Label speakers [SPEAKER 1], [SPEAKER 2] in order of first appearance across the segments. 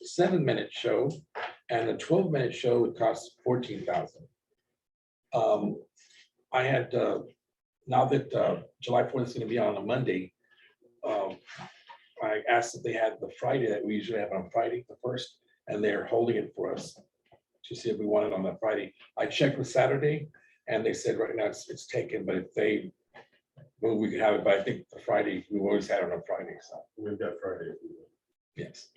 [SPEAKER 1] the seven minute show and the twelve minute show would cost fourteen thousand. Um, I had, uh, now that, uh, July fourth is gonna be on a Monday, um, I asked if they had the Friday that we usually have on Friday, the first, and they're holding it for us to see if we want it on that Friday. I checked with Saturday and they said right now it's, it's taken, but if they, well, we could have it, but I think the Friday, we've always had it on Friday, so,
[SPEAKER 2] We've got Friday.
[SPEAKER 1] yes.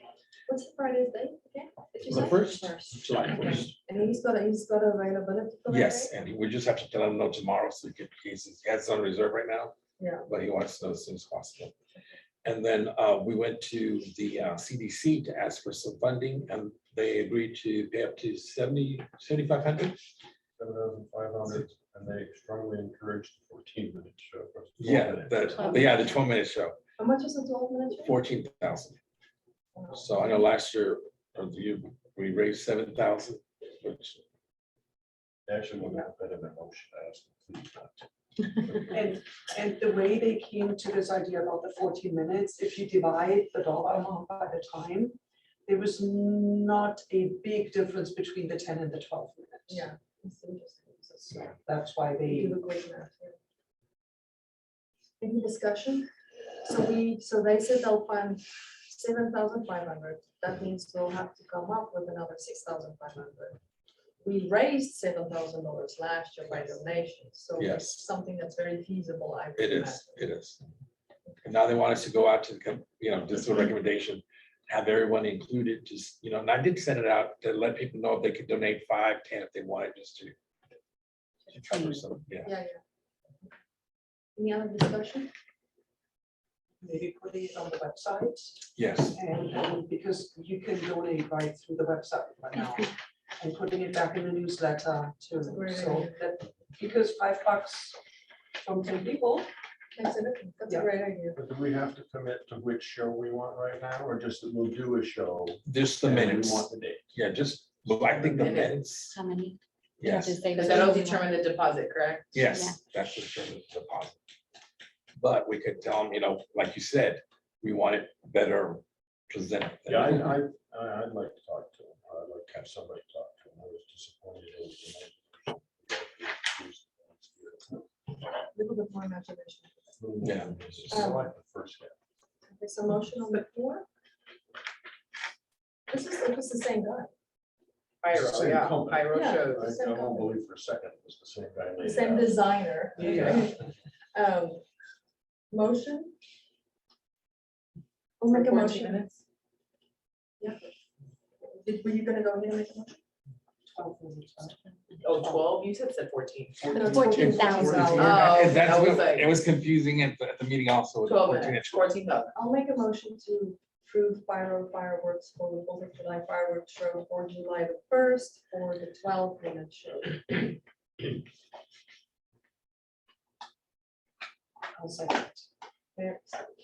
[SPEAKER 3] What's the Friday's date? again? Did you
[SPEAKER 1] The
[SPEAKER 3] say?
[SPEAKER 1] first, July first.
[SPEAKER 3] And he's got, he's got availability for that
[SPEAKER 1] Yes,
[SPEAKER 3] date?
[SPEAKER 1] and we just have to tell him no tomorrow, so he can, he's, he has on reserve right now.
[SPEAKER 3] Yeah.
[SPEAKER 1] But he wants to know as soon as possible. And then, uh, we went to the uh, CDC to ask for some funding, and they agreed to pay up to seventy, seventy-five hundred?
[SPEAKER 2] Seven thousand five hundred, and they strongly encourage the fourteen minute show.
[SPEAKER 1] Yeah, the, yeah, the twelve minute show,
[SPEAKER 3] How much is the twelve minute? show?
[SPEAKER 1] fourteen thousand. So I know last year, or the year, we raised seven thousand, which,
[SPEAKER 2] Actually, we'll have that in the motion, I ask. please not to.
[SPEAKER 4] And, and the way they came to this idea about the fourteen minutes, if you divide the dollar amount by the time, there was not a big difference between the ten and the twelve minutes.
[SPEAKER 3] Yeah. it's interesting. So,
[SPEAKER 1] yeah.
[SPEAKER 4] That's why
[SPEAKER 3] you
[SPEAKER 4] they,
[SPEAKER 3] do a great math, yeah. Any discussion? So we, so they said they'll fund seven thousand five hundred. That means we'll have to come up with another six thousand five hundred. We raised seven thousand dollars last year by donations, so
[SPEAKER 1] Yes.
[SPEAKER 3] it's something that's very feasible, I would
[SPEAKER 1] It
[SPEAKER 3] imagine.
[SPEAKER 1] is, it is. And now they want us to go out to, the com- you know, just a recommendation, have everyone included, just, you know, and I did send it out to let people know if they could donate five, ten, if they wanted, just to. to cover some, yeah.
[SPEAKER 3] Yeah, yeah. Any other discussion?
[SPEAKER 4] maybe put it on the website,
[SPEAKER 1] Yes,
[SPEAKER 4] and, and because you can donate right through the website right now. And putting it back in the newsletter too,
[SPEAKER 3] That's a great
[SPEAKER 4] so
[SPEAKER 3] idea.
[SPEAKER 4] that, because five bucks from ten people,
[SPEAKER 3] That's a- that's a
[SPEAKER 4] Yeah.
[SPEAKER 3] great idea.
[SPEAKER 2] But do we have to commit to which show we want right now, or just that we'll do a show?
[SPEAKER 1] just the
[SPEAKER 2] and we
[SPEAKER 1] minutes,
[SPEAKER 2] Want the date.
[SPEAKER 1] yeah, just, look, I think the
[SPEAKER 5] Minutes.
[SPEAKER 1] minutes,
[SPEAKER 5] How many? You have to
[SPEAKER 1] yes,
[SPEAKER 5] say
[SPEAKER 6] Because
[SPEAKER 5] what
[SPEAKER 6] that'll
[SPEAKER 5] you want.
[SPEAKER 6] determine the deposit, correct?
[SPEAKER 5] Yeah.
[SPEAKER 1] yes, that's the term of deposit. But we could tell them, you know, like you said, we want it better presented. than-
[SPEAKER 2] Yeah, I, I, I- I'd like to talk to him, I'd like to have somebody talk to him, I was disappointed. it was the night.
[SPEAKER 3] Little bit more imagination.
[SPEAKER 1] Yeah.
[SPEAKER 2] I like the first half.
[SPEAKER 3] There's a motion on the floor. This is, this is the same guy.
[SPEAKER 2] It's the
[SPEAKER 6] Pyro,
[SPEAKER 2] same
[SPEAKER 6] yeah,
[SPEAKER 2] company.
[SPEAKER 6] pyro
[SPEAKER 3] Yeah.
[SPEAKER 6] shows.
[SPEAKER 2] I I won't believe for a second it was the same guy. laid it
[SPEAKER 3] Same
[SPEAKER 2] out.
[SPEAKER 3] designer.
[SPEAKER 4] Yeah.
[SPEAKER 3] Um, Motion? We'll make a
[SPEAKER 6] For 14
[SPEAKER 3] motion.
[SPEAKER 6] minutes.
[SPEAKER 3] Yeah. Did- Were you gonna go ahead and make a motion?
[SPEAKER 4] twelve minutes. right?
[SPEAKER 6] Oh, twelve, you said said fourteen.
[SPEAKER 3] No,
[SPEAKER 5] Fourteen thousand.
[SPEAKER 6] Oh,
[SPEAKER 1] And that's
[SPEAKER 6] I was
[SPEAKER 1] what-
[SPEAKER 6] like-
[SPEAKER 1] It was confusing at the, at the meeting also.
[SPEAKER 6] Twelve
[SPEAKER 1] 14
[SPEAKER 6] minutes,
[SPEAKER 1] inch.
[SPEAKER 6] fourteen thousand.
[SPEAKER 3] I'll make a motion to approve fire fireworks for the Fourth of July fireworks show for July the first for the twelve minute show.
[SPEAKER 4] I'll second.
[SPEAKER 3] Mayor-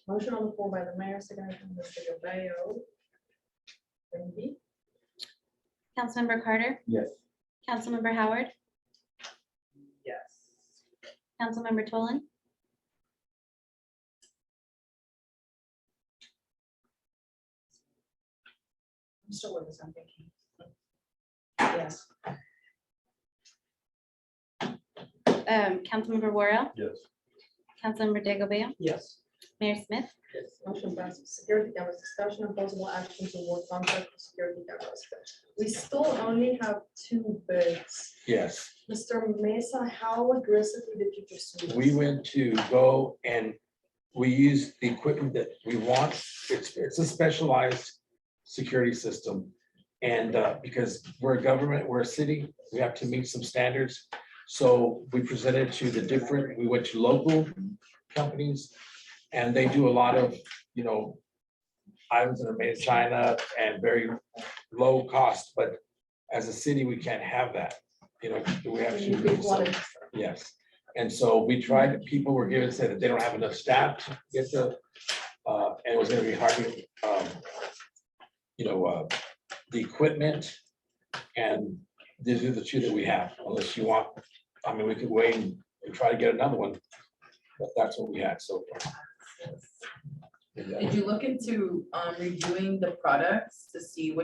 [SPEAKER 3] Motion on the floor by the mayor, seconded by Mr. Gabello. Randy?
[SPEAKER 5] Councilmember Carter,
[SPEAKER 2] Yes.
[SPEAKER 5] Councilmember Howard,
[SPEAKER 6] Yes.
[SPEAKER 5] Councilmember Tolan,
[SPEAKER 3] I'm still with us, I'm thinking.
[SPEAKER 4] Yes.
[SPEAKER 5] um, Councilmember Worrell,
[SPEAKER 2] Yes.
[SPEAKER 5] Councilmember Digglebale,
[SPEAKER 4] Yes.
[SPEAKER 5] Mayor Smith,
[SPEAKER 3] Motion passes. Security cameras, discussion and possible action to award contract for security cameras. We still only have two bids.
[SPEAKER 1] Yes.
[SPEAKER 3] Mr. Mesa, how aggressively did you pursue this?
[SPEAKER 1] we went to go and we used the equipment that we want. It's, it's a specialized security system. And uh, because we're a government, we're a city, we have to meet some standards. So we presented to the different, we went to local companies and they do a lot of, you know, items that are made in China and very low cost, but as a city, we can't have that. You know, we have
[SPEAKER 3] You
[SPEAKER 1] to.
[SPEAKER 3] did one.
[SPEAKER 1] Yes, and so we tried, people were given, said that they don't have enough staff to get the, uh, and it was gonna be hard to, um, you know, uh, the equipment. And these are the two that we have, unless you want, I mean, we could wait and try to get another one, but that's what we had so far.
[SPEAKER 6] Did you look into um reviewing the products to see what